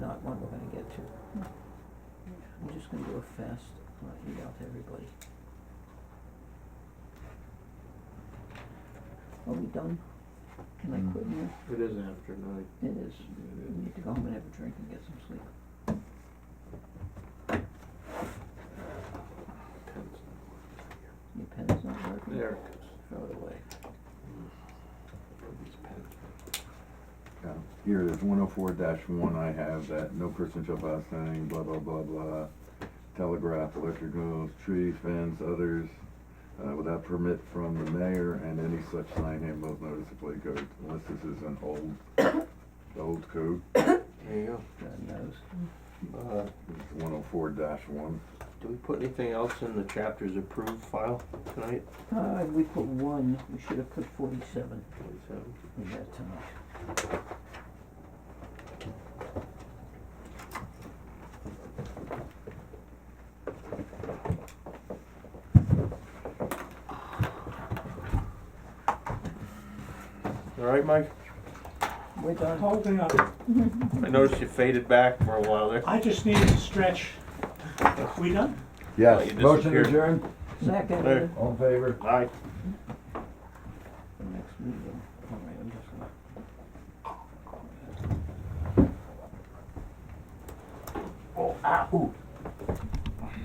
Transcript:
two. I'm just gonna do a fast, uh, email to everybody. Are we done? Can I quit now? It is after night. It is, It we need to go home and have a drink and get some sleep. Tense. Your pen's not working? There it is. Throw it away. These pens. Yeah, here, there's one oh four one I have that no person shall pass sign, blah, blah, blah, blah. Telegraph, electricals, trees, fence, others, uh, without permit from the mayor and any such sign handbook, notice of plate code, unless this is an old, old code. There you God knows. go. Uh, It's one oh four one. do we put anything else in the chapters approved file tonight? Uh, we put one, we should have put forty-seven, Twenty-seven. we had too much. All right, Mike? We're done. Holding up. I noticed you faded back for a while there. uh, I just needed to stretch. We done? Yes. you Motion disappeared. adjourned, Second, There. the all in favor? Aye. next meeting, all right, I'm just gonna. Oh, ah, ooh,